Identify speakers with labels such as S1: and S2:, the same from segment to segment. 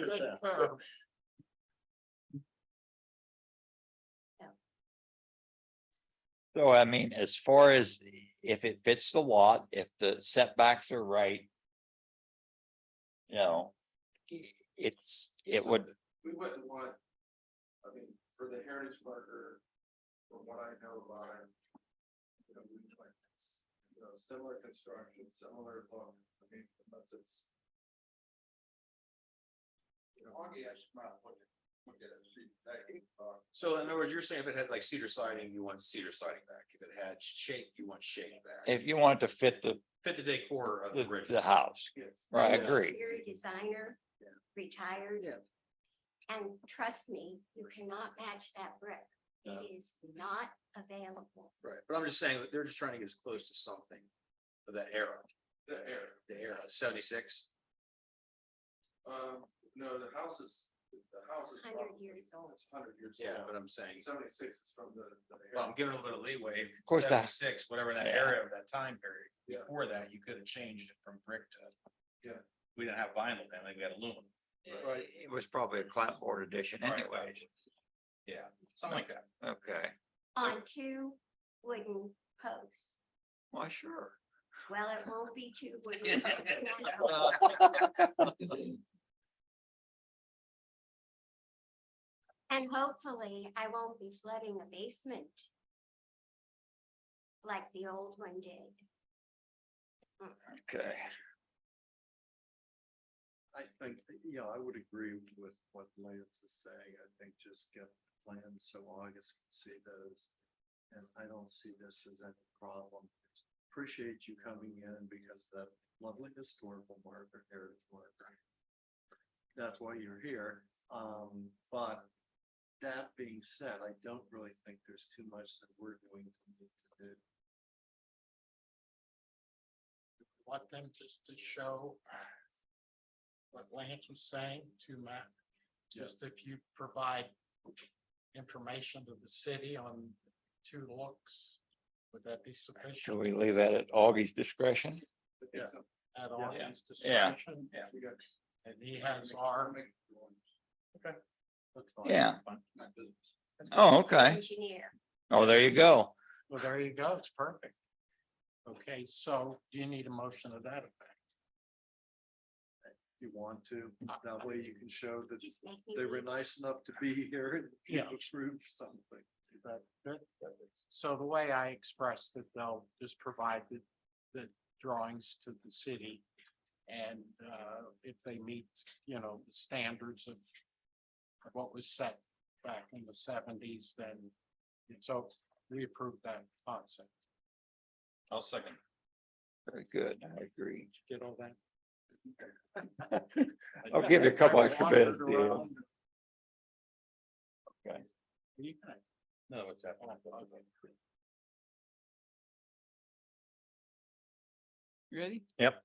S1: good
S2: Yeah.
S1: firm.
S3: So I mean, as far as if it fits the lot, if the setbacks are right. You know. i- It's, it
S4: It's a-
S3: would,
S4: We wouldn't want, I mean, for the heritage marker, from what I know about. it, You know, we like this, you know, similar construction, similar look, I mean, unless it's. You know, Augie actually might look at, look at it, see, that, uh,
S2: So in other words, you're saying if it had like cedar siding, you want cedar siding back. If it had shake, you want shake back.
S3: if you want to fit the,
S2: Fit the decor of
S3: the,
S2: the original.
S3: the house,
S4: yeah.
S3: right, I
S2: Yeah.
S3: agree,
S1: Interior designer, retired.
S2: Yeah.
S1: And trust me, you cannot match that brick.
S2: No.
S1: It is not available.
S2: Right, but I'm just saying, that they're just trying to get as close to something of that era,
S4: The air,
S2: the era seventy-six.
S4: um, no, the house is, the house is.
S1: 100
S4: probably- Oh,
S1: years old.
S4: It's hundred years.
S2: Yeah,
S4: old.
S2: but I'm saying,
S4: Seventy-six is from the. the
S2: well, I'm
S4: air.
S2: giving a little bit of leeway. Of
S3: course that-
S2: Seventy-six, whatever that
S3: Yeah.
S2: area of that time period.
S4: Yeah.
S2: Before that, you could have changed it from brick to.
S4: Yeah.
S2: We didn't have vinyl then, like we had aluminum.
S4: Right.
S3: it was probably a clapboard edition
S2: Right.
S3: anyways,
S2: Yeah, something like that.
S3: okay,
S1: on two wooden posts.
S3: well, sure.
S1: Well, it won't be two wooden posts. now. And hopefully I won't be flooding a basement. Like the old one did.
S3: Okay,
S4: I think, you know, I would agree with what Lance is saying. I think just get plans so August can see those. And I don't see this as any problem. Appreciate you coming in because that lovely historical marker, heritage marker. That's why you're here. Um, but that being said, I don't really think there's too much that we're going to need to do.
S5: want them just to show what Lance was saying to Matt.
S4: Yeah.
S5: Just if you provide information to the city on two looks, would that be
S3: shall
S5: sufficient
S3: we leave that at Augie's discretion?
S4: I think
S2: Yeah.
S4: so.
S5: at
S2: Yeah.
S5: Augie's
S3: Yeah.
S5: discretion?
S2: Yeah.
S4: We got.
S5: And he has our,
S4: That's fine.
S3: Yeah,
S2: That's fine.
S4: Not business.
S3: oh, okay,
S1: Engineer.
S3: oh, there you go,
S5: well, there you go, it's perfect. Okay, so do you need a motion of that effect?
S4: you want to. That way you can show that
S1: Just make me.
S4: they were
S1: weep.
S4: nice enough to be here and
S5: Yeah.
S4: approve something.
S5: Is that good? So the way I expressed it, they'll just provide the, the drawings to the city. And, uh, if they meet, you know, the standards of of what was set back in the seventies, then it's so we approve that concept.
S2: I'll second.
S3: very good, I agree.
S5: Get all that?
S3: I'll give you a couple
S5: I
S3: extra
S5: wandered
S3: bits, yeah.
S5: around.
S3: Okay.
S5: You can-
S2: No, it's that.
S5: oh, okay.
S6: You ready?
S3: Yep.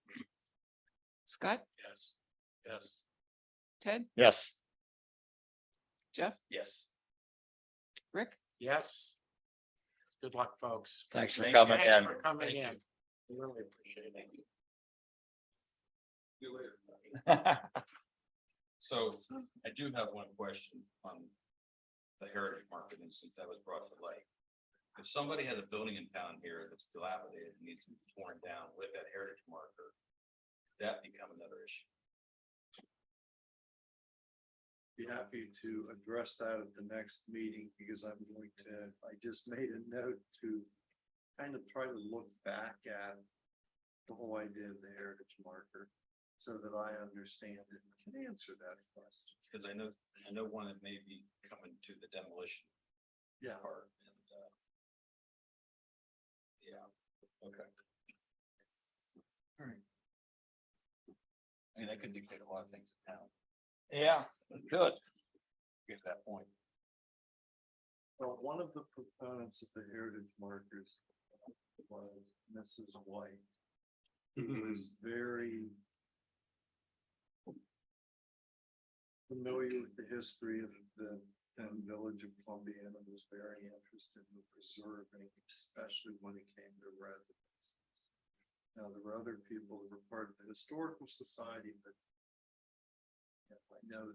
S6: Scott,
S2: Yes. Yes.
S6: Ted,
S3: Yes.
S6: Jeff,
S2: Yes.
S6: Rick?
S5: Yes. Good luck, folks.
S3: Thanks for
S2: Thank
S3: coming
S5: Thanks
S3: in.
S5: for Coming
S2: Thank you.
S5: in. We Really appreciate it.
S2: So I do have one question on the heritage market, and since that was brought to light. If somebody has a building in town here that's dilapidated and needs to be torn down with that heritage marker, that become another issue.
S4: Be happy to address that at the next meeting because I'm going to, I just made a note to kind of try to look back at the whole idea of the heritage marker so that I understand it and can answer that question.
S2: Because I know, I know one that may be coming to the demolition
S4: Yeah.
S2: part and, uh. Yeah, okay. I mean, that could dictate a lot of things in town,
S3: Yeah, good.
S2: get to that point.
S4: Well, one of the proponents of the heritage markers was Mrs. White. who is very familiar with the history of the um, village of Columbia and was very interested in preserving, especially when it came to residences. Now, there were other people who were part of the historical society, but you know, I know